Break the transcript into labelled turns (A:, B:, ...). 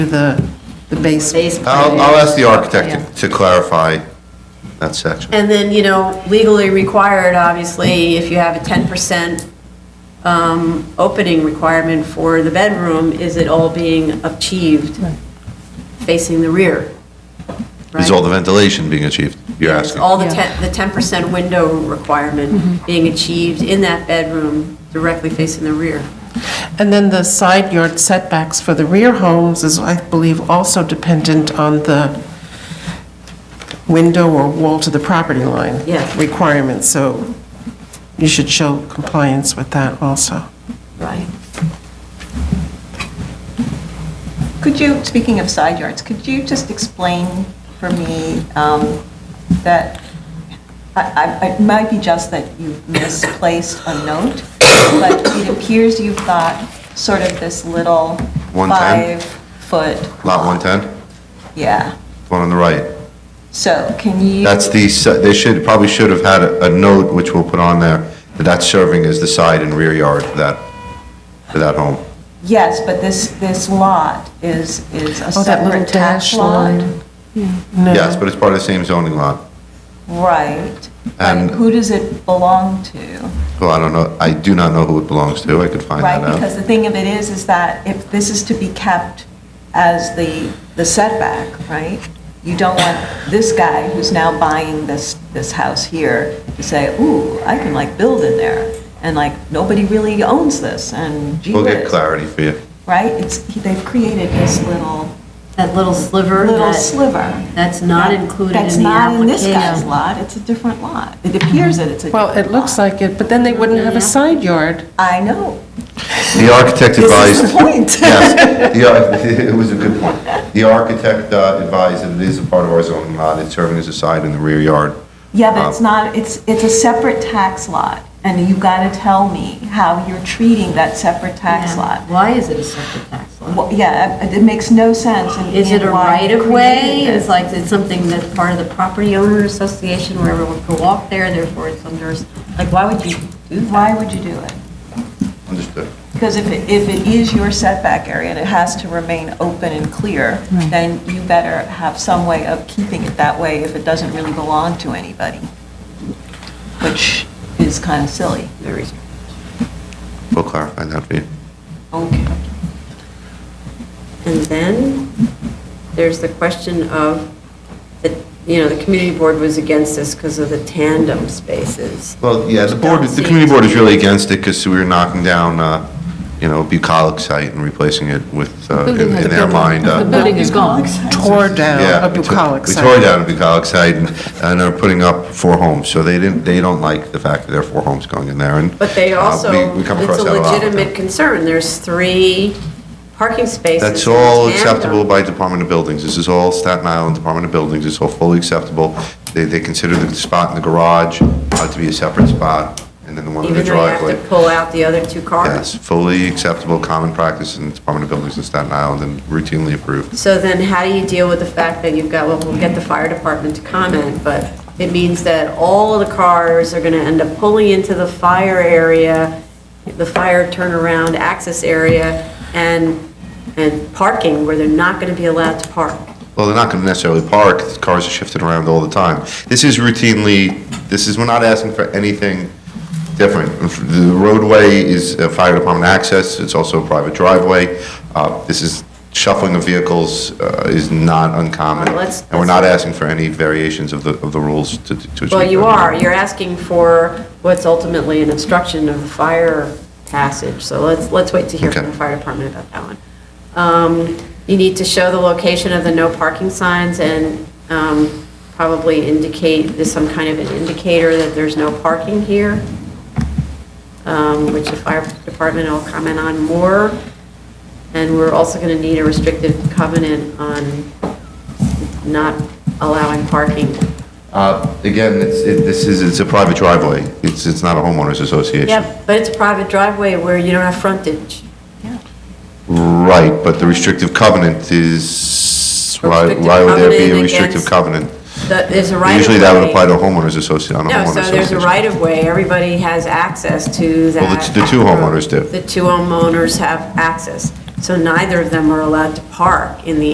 A: the, the base.
B: Base plan.
C: I'll, I'll ask the
B: Yeah.
C: architect to to clarify that section.
B: And then, you know, legally required, obviously, if you have a 10% um, opening requirement for the bedroom, is it all being achieved facing the rear?
C: Is
B: right?
C: all the ventilation being achieved, you're
B: Is
C: asking?
B: All the 10, the 10% window requirement being achieved in that bedroom directly facing the rear.
A: And then the side yard setbacks for the rear homes is, I believe, also dependent on the window or wall to the property line.
B: Yeah.
A: Requirements, so you should show compliance with that also.
B: Right.
D: Could you, speaking of side yards, could you just explain for me um, that, I- I- it might be just that you've misplaced a note, but it appears you've got sort of this little
C: 110?
D: five-foot,
C: Lot 110,
D: yeah.
C: one on the right.
D: So can you?
C: That's the, si- they should, probably should have had a a note, which we'll put on there, that that's serving as the side and rear yard for that, for that home.
D: Yes, but this, this lot is, is a
A: Oh, that little
D: separate tax
A: dash
D: lot.
A: line.
C: Yes, but it's part of the same zoning lot.
D: Right.
C: And-
D: And who does it belong to?
C: Well, I don't know, I do not know who it belongs to, I could find that
D: Right,
C: out.
D: because the thing of it is, is that if this is to be kept as the, the setback, right? You don't want this guy who's now buying this, this house here to say, ooh, I can like build in there, and like, nobody really owns this, and gee
C: We'll get
D: whiz,"
C: clarity for you.
D: Right? It's, they've created this little,
B: That little sliver,
D: little
B: that,
D: sliver.
B: that's not included in the application.
D: That's not in this guy's lot, it's a different lot. It appears that it's a different
A: Well, it looks
D: lot.
A: like it, but then they wouldn't have a side yard.
D: I know,
C: The architect
D: this
C: advised.
D: is the point.
C: Yes, the ar- it was a good point. The architect uh, advised that it is a part of our zoning lot, it's serving as a side in the rear yard.
D: Yeah, but it's not, it's, it's a separate tax lot, and you've got to tell me how you're treating that separate tax lot.
B: Why is it a separate tax lot?
D: Well, Yeah, it it makes no sense. in-
B: Is it a
D: in why you
B: right-of-way?
D: created it.
B: Is like, it's something that's part of the property owner association where everyone can walk there, therefore it's under, like, why would you do that?
D: Why would you do it?
C: Understood.
D: Because if it, if it is your setback area and it has to remain open and clear, then you better have some way of keeping it that way if it doesn't really belong to anybody, which is kind of silly.
C: We'll clarify that for you.
D: Okay.
B: And then there's the question of, the- you know, the community board was against this because of the tandem spaces.
C: Well, yeah, the board, the community board is really against it because we were knocking down, uh, you know, bucolic site and replacing it with, uh, in in their mind. uh,
A: building is gone. Tore down
C: Yeah,
A: a
C: we took-
A: bucolic site.
C: We tore down a bucolic site and and are putting up four homes, so they didn't, they don't like the fact that there are four homes going in there and.
B: But they
C: uh,
B: also,
C: we- we come across
B: it's a
C: that lot with them.
B: legitimate concern. There's three parking spaces.
C: That's all
B: in tandem.
C: acceptable by Department of Buildings. This is all Staten Island Department of Buildings. It's all fully acceptable. They, they consider the spot in the garage uh, to be a separate spot, and then the one in the
B: Even though you have
C: driveway.
B: to pull out the other two cars.
C: Yes, fully acceptable, common practice in the Department of Buildings in Staten Island and routinely approved.
B: So then how do you deal with the fact that you've got, well, we'll get the fire department to comment, but it means that all of the cars are gonna end up pulling into the fire area, the fire turnaround access area, and, and parking where they're not gonna be allowed to park.
C: Well, they're not going to necessarily park, The cars are shifted around all the time. This is routinely, this is, we're not asking for anything different. The roadway is a fire department access, it's also a private driveway. Uh, This is, shuffling of vehicles uh, is not uncommon.
B: All right, let's-
C: And we're not asking for any variations of the, of the rules to. to- to-
B: Well, you are, you're asking for what's ultimately an obstruction of the fire passage, so let's, let's wait to hear from
C: Okay.
B: the fire department about that one. Um, You need to show the location of the no parking signs and um, probably indicate, there's some kind of an indicator that there's no parking here, um, which the fire department will comment on more. And we're also going to need a restrictive covenant on not allowing parking.
C: Uh, Again, it's, it- this is, it's a private driveway, it's, it's not a homeowners association.
B: Yeah, but it's a private driveway where you don't have frontage.
C: Right, but the restrictive covenant is, why,
B: Restrictive
C: why would there be a
B: covenant
C: restrictive
B: against-
C: covenant?
B: That- There's a right of way.
C: Usually that would apply to homeowners association, on a
B: No,
C: homeowners
B: so there's a
C: association.
B: right of way. Everybody has access to that.
C: Well, the t- the two homeowners do.
B: The two homeowners have access. So neither of them are allowed to park in the